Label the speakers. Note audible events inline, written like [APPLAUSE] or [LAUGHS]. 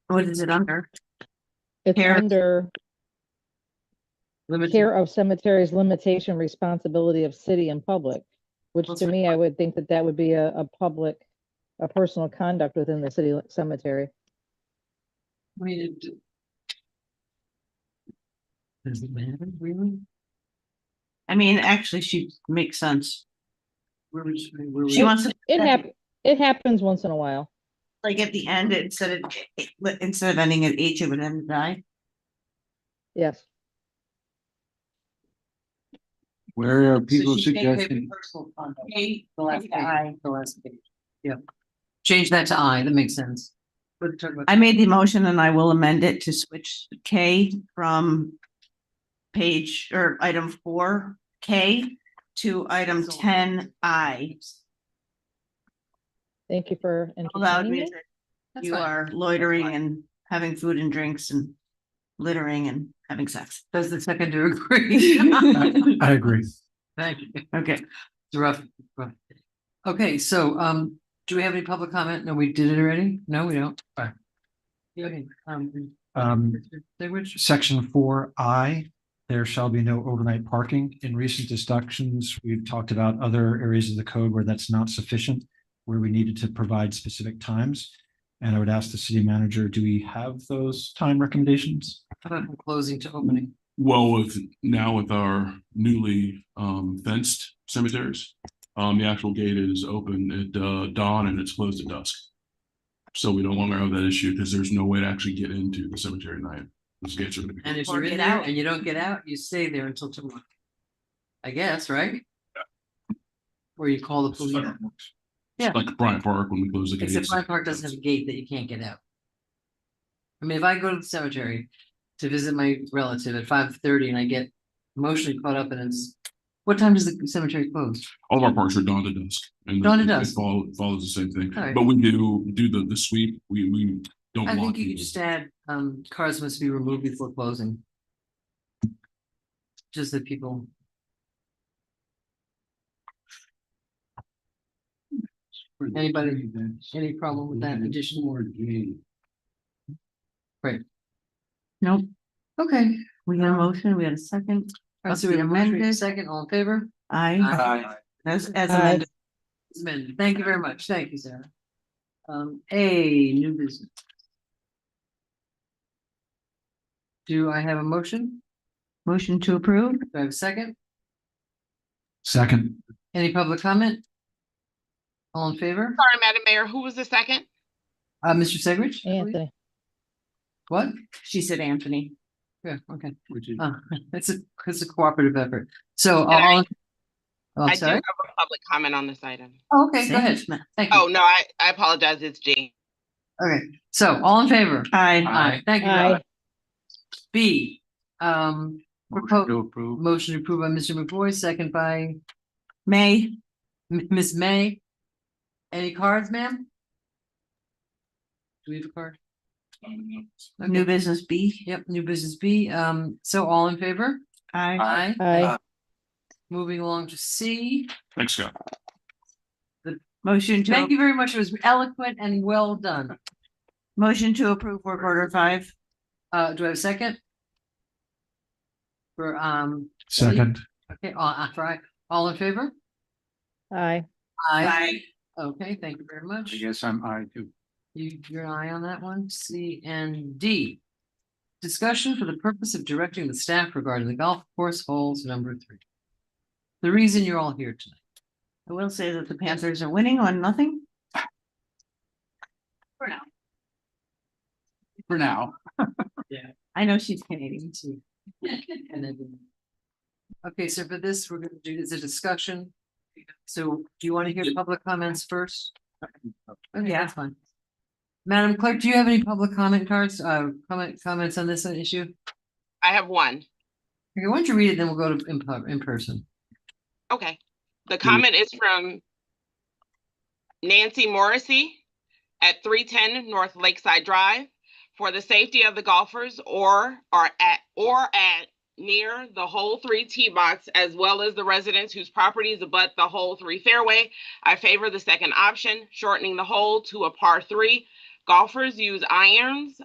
Speaker 1: What is it under?
Speaker 2: It's
Speaker 1: Care-
Speaker 2: under
Speaker 1: Limited-
Speaker 2: care of cemeteries limitation responsibility of city and public, which
Speaker 1: Those
Speaker 2: to
Speaker 1: are-
Speaker 2: me, I would think that that would be a, a public, a personal conduct within the city cemetery.
Speaker 1: I mean, it d- Does it matter, really? I mean, actually, she makes sense. Where was, where was- She
Speaker 2: It-
Speaker 1: wants to,
Speaker 2: It
Speaker 1: Okay.
Speaker 2: hap, it happens once in a while.
Speaker 1: like, at the end, instead of, it- it- instead of ending at H, it would end at I.
Speaker 2: Yes.
Speaker 3: Where are
Speaker 1: So
Speaker 3: people
Speaker 1: she's saying maybe
Speaker 3: suggesting,
Speaker 1: personal conduct.
Speaker 4: Okay,
Speaker 1: The last page,
Speaker 4: I.
Speaker 1: the last page.
Speaker 4: Change that to I, that makes sense.
Speaker 1: We're talking about- I made the motion and I will amend it to switch K from page or item four K to item ten I.
Speaker 2: Thank you for
Speaker 1: Allowed
Speaker 2: entertaining it.
Speaker 1: music,
Speaker 4: That's
Speaker 1: you
Speaker 4: fine.
Speaker 1: are
Speaker 4: That's
Speaker 1: loitering
Speaker 4: fine.
Speaker 1: and having food and drinks and littering and having sex.
Speaker 4: Does the seconder agree? [LAUGHS] Thank
Speaker 3: I agree.
Speaker 4: you.
Speaker 1: Okay,
Speaker 4: It's rough, rough. Okay, so, um, do we have any public comment? No, we did it already? No, we don't.
Speaker 3: Fine.
Speaker 4: Okay, um,
Speaker 3: Um,
Speaker 4: they were just-
Speaker 3: section four I, there shall be no overnight parking. In recent discussions, we've talked about other areas of the code where that's not sufficient, where we needed to provide specific times. And I would ask the city manager, do we have those time recommendations?
Speaker 4: how about from closing to opening.
Speaker 5: Well, with now with our newly um fenced cemeteries, um the actual gate is open at uh dawn and it's closed at dusk. So we no longer have that issue because there's no way to actually get into the cemetery at night. Those gates are gonna be.
Speaker 4: And if
Speaker 1: Or
Speaker 4: you're in
Speaker 1: get
Speaker 4: there
Speaker 1: out.
Speaker 4: and you don't get out, you stay there until tomorrow. I guess, right? Or you call the police. Yeah.
Speaker 5: It's Like Bryant Park when we close the gates.
Speaker 4: Except Bryant Park doesn't have a gate that you can't get out. I mean, if I go to the cemetery to visit my relative at five thirty and I get emotionally caught up in it's. What time does the cemetery close?
Speaker 5: All of our parks are dawn to dusk. and
Speaker 4: Dawn to
Speaker 5: it- it
Speaker 4: dusk.
Speaker 5: follow- Follows the same thing,
Speaker 4: All right.
Speaker 5: but we do do the the sweep. We we don't.
Speaker 4: I
Speaker 5: lock
Speaker 4: think you could
Speaker 5: people.
Speaker 4: just add, um, cars must be removed before closing. Just that people. Anybody, any problem with that addition?
Speaker 1: nope,
Speaker 4: Okay.
Speaker 1: we
Speaker 4: Um,
Speaker 1: got a motion, we had a second.
Speaker 4: All right, so we have a motion, we have a second, all in favor?
Speaker 1: I, as, as amended,
Speaker 4: It's been- thank you very much. Thank you, Sarah. Um, A, new business. Do I have a motion?
Speaker 1: motion to approve.
Speaker 4: Do I have a second?
Speaker 3: Second.
Speaker 4: Any public comment? All in favor?
Speaker 6: Sorry, Madam Mayor, who was the second?
Speaker 4: Uh, Mr. Segridge?
Speaker 2: Anthony,
Speaker 4: What?
Speaker 1: She said Anthony.
Speaker 4: Yeah, okay.
Speaker 3: Which is-
Speaker 4: Uh, [LAUGHS] it's a, it's a cooperative effort. So
Speaker 6: I-
Speaker 4: all. Oh,
Speaker 6: I
Speaker 4: I'm
Speaker 6: do have
Speaker 4: sorry.
Speaker 6: a public comment on this item.
Speaker 4: Oh, Okay, go ahead. Thank
Speaker 6: Oh,
Speaker 4: you.
Speaker 6: no, I, I apologize. It's Jean. Oh.
Speaker 4: Okay, so all in favor?
Speaker 1: I,
Speaker 4: Aye. Thank you.
Speaker 2: Aye.
Speaker 4: Robert. B, um,
Speaker 3: Motion to approve.
Speaker 4: Motion approved by Mr. McBoy, second by
Speaker 1: May,
Speaker 4: M- Ms. May. Any cards, ma'am? Do we have a card?
Speaker 1: new
Speaker 4: Okay.
Speaker 1: business B,
Speaker 4: Yep, new business B. Um, so all in favor?
Speaker 1: I,
Speaker 2: aye,
Speaker 4: Moving along to C.
Speaker 5: Thanks, Scott.
Speaker 1: motion
Speaker 4: Thank
Speaker 1: to,
Speaker 4: you very much. It was eloquent and well done.
Speaker 1: motion to approve work order five.
Speaker 4: Uh, do I have a second? For, um,
Speaker 3: Second.
Speaker 4: okay, all, uh, for, I- all in favor?
Speaker 2: aye,
Speaker 4: Okay, thank you very much.
Speaker 3: guess I'm I too.
Speaker 4: You, your eye on that one, C and D. Discussion for the purpose of directing the staff regarding the golf course holes number three. The reason you're all here tonight.
Speaker 1: I will say that the Panthers are winning on nothing.
Speaker 3: For now.
Speaker 1: [LAUGHS] I know she's Canadian too.
Speaker 4: [LAUGHS] And then- Okay, so for this, we're gonna do, is a discussion. So do you want to hear public comments first? Okay,
Speaker 1: Yeah.
Speaker 4: that's fine. Madam Clerk, do you have any public comment cards, uh, comment, comments on this issue?
Speaker 6: I have one.
Speaker 4: Okay, why don't you read it, then we'll go to in, pub- in person.
Speaker 6: Okay.
Speaker 4: Mm.
Speaker 6: The comment is from Nancy Morrissey at three ten North Lakeside Drive. For the safety of the golfers or are at or at near the hole three tee box as well as the residents whose properties abut the hole three fairway, I favor the second option, shortening the hole to a par three. Golfers use irons